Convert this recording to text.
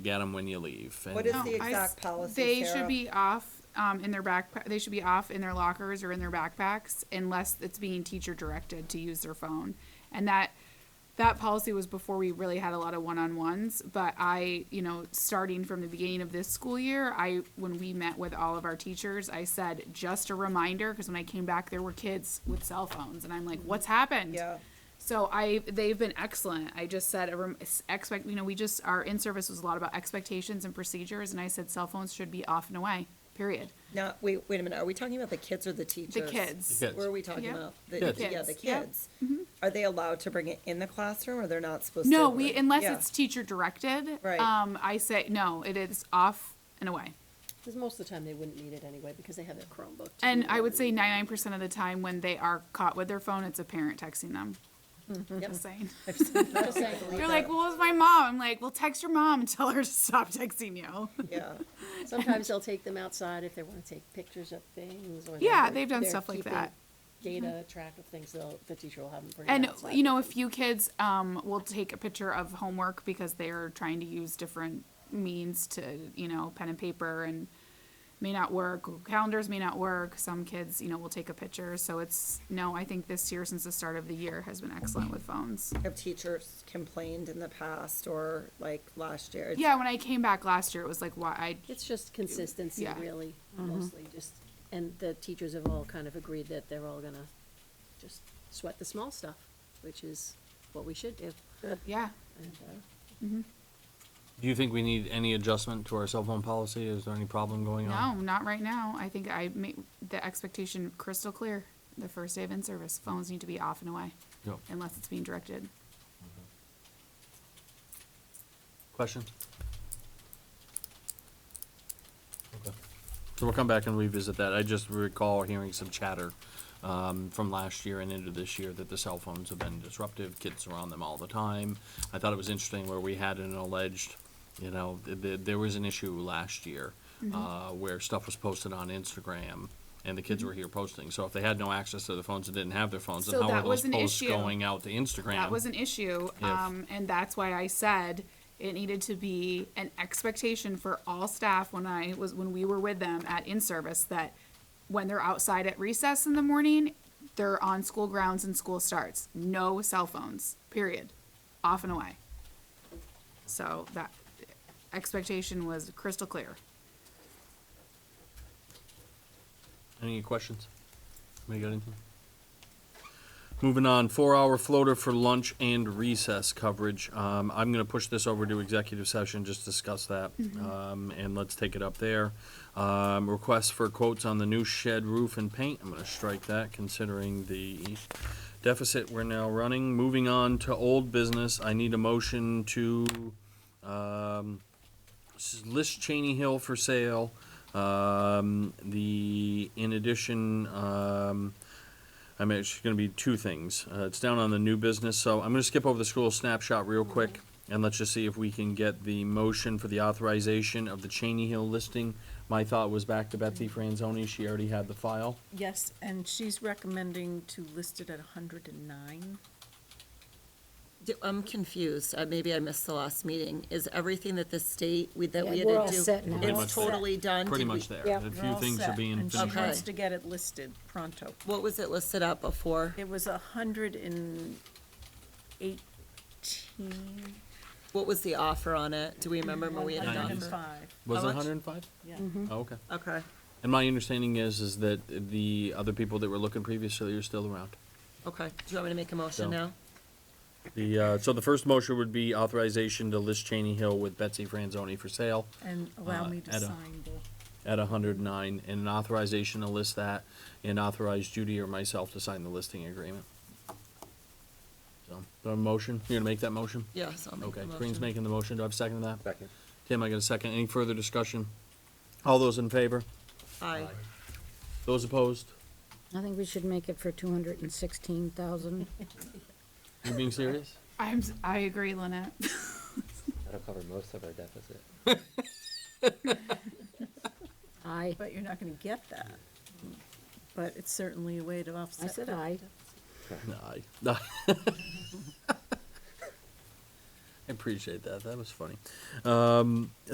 get them when you leave. and- What is No, the I exact s- policy, They Sarah? should be off, um, in their backpack, they should be off in their lockers or in their backpacks unless it's being teacher directed to use their phone. And that, that policy was before we really had a lot of one-on-ones, but I, you know, starting from the beginning of this school year, I, when we met with all of our teachers, I said, just a reminder, cause when I came back, there were kids with cell phones and I'm like, what's happened? Yeah. So I, they've been excellent. I just said, a rem- s- expect, you know, we just, our in-service was a lot about expectations and procedures, and I said cell phones should be off and away, period. Now, wait, wait a minute, are we talking about the kids or the teachers? kids. The kids. What are we talking Yep. about? Kids. Yeah, the Kids, yep. kids. Are they allowed to bring it in the classroom or they're not supposed to? No, we, unless Yeah. it's teacher directed. Right. Um, I say, no, it is off and away. Because most of the time they wouldn't need it anyway because they have their Chromebook. to And do I it. would say ninety-nine percent of the time when they are caught with their phone, it's a parent texting them. Just saying. Just saying. They're like, well, it's my mom. I'm like, well, text your mom and tell her to stop texting you. Yeah, Sometimes they'll take them outside if they want to take pictures of things or. Yeah, they're- they've done they're stuff like keeping that. Mm-hmm. Data track of things, they'll, the teacher will have them bring it And outside you know, a with them. few kids um, will take a picture of homework because they are trying to use different means to, you know, pen and paper and may not work. Calendars may not work. Some kids, you know, will take a picture. So it's no. I think this year, since the start of the year, has been excellent with phones. have teachers complained in the past or like last year? It's- Yeah, when I came back last year, it was like why I It's just consistency Yeah. Mm-hmm. really, mostly just, and the teachers have all kind of agreed that they're all gonna just sweat the small stuff, which is what we should do. yeah. And, uh, Do you think we need any adjustment to our cell phone policy? Is there any problem going No, on? not right now. I think I made the expectation crystal clear. The first day of in service, phones need to be off and away No. unless it's being directed. Questions? Okay. So we'll come back and revisit that. I just recall hearing some chatter um, from last year and into this year that the cell phones have been disruptive. Kids are on them all the time. I thought it was interesting where we had an alleged, you know, th- th- there was an issue last year Mm-hmm. uh, where stuff was posted on Instagram and the kids were here posting. So if they had no access to their phones and didn't have their phones, then Mm-hmm. So how were that was those an posts issue. going out to Instagram? That was an issue, If- um, and that's why I said it needed to be an expectation for all staff when I was, when we were with them at in-service, that when they're outside at recess in the morning, they're on school grounds and school starts. No cell phones, period. Off and away. So that expectation was crystal clear. Any questions? Anybody got anything? Moving on, four-hour floater for lunch and recess coverage. Um, I'm gonna push this over to executive session, just discuss that, um, and let's take it up there. Um, request for quotes on the new shed roof and paint, I'm gonna strike that considering the deficit we're now running. Moving on to old business, I need a motion to, um, this is list Cheney Hill for sale. Um, the, in addition, um, I mean, it's gonna be two things. Uh, it's down on the new business, so I'm gonna skip over the school snapshot real quick. And let's just see if we can get the motion for the authorization of the Cheney Hill listing. My thought was back to Betsy Franzoni, she already had the file. Yes, and she's recommending to list it at hundred and nine. Do- I'm confused, Uh, maybe I missed the last meeting, is everything that the state, we, that Yeah, we had to do? we're all set now. Pretty much It's there. totally done? Pretty Did we- much there. yeah, A We're few all things are set, being And she finished. Okay. wants to get it listed pronto. What was it listed at before? It was a hundred and eighteen, What was the offer on it? Do we remember when we one had an hundred and offer? five, Was it How much? hundred and five? yeah. Oh, okay. Okay, And my understanding is, is that the other people that were looking previously are still around. okay. Do you want me to make a motion No. now? The, uh, so the first motion would be authorization to list Cheney Hill with Betsy Franzoni for sale And allow Uh, me to at a- sign the, at hundred and nine, and an authorization to list that, and authorize Judy or myself to sign the listing agreement. So, the motion, you're gonna make that motion? Yes, I'll make the Okay, motion. Green's making the motion, do I have a second to that? Second. Tim, I got a second, any further discussion? All those in favor? Aye. Those opposed? I think we should make it for two hundred and sixteen thousand. You being serious? I'm, s- I agree, Lynette. That'll cover most of our deficit. Aye, but you're not gonna get that. But it's certainly a way to offset. I said that. aye. Aye. I appreciate that. That was funny.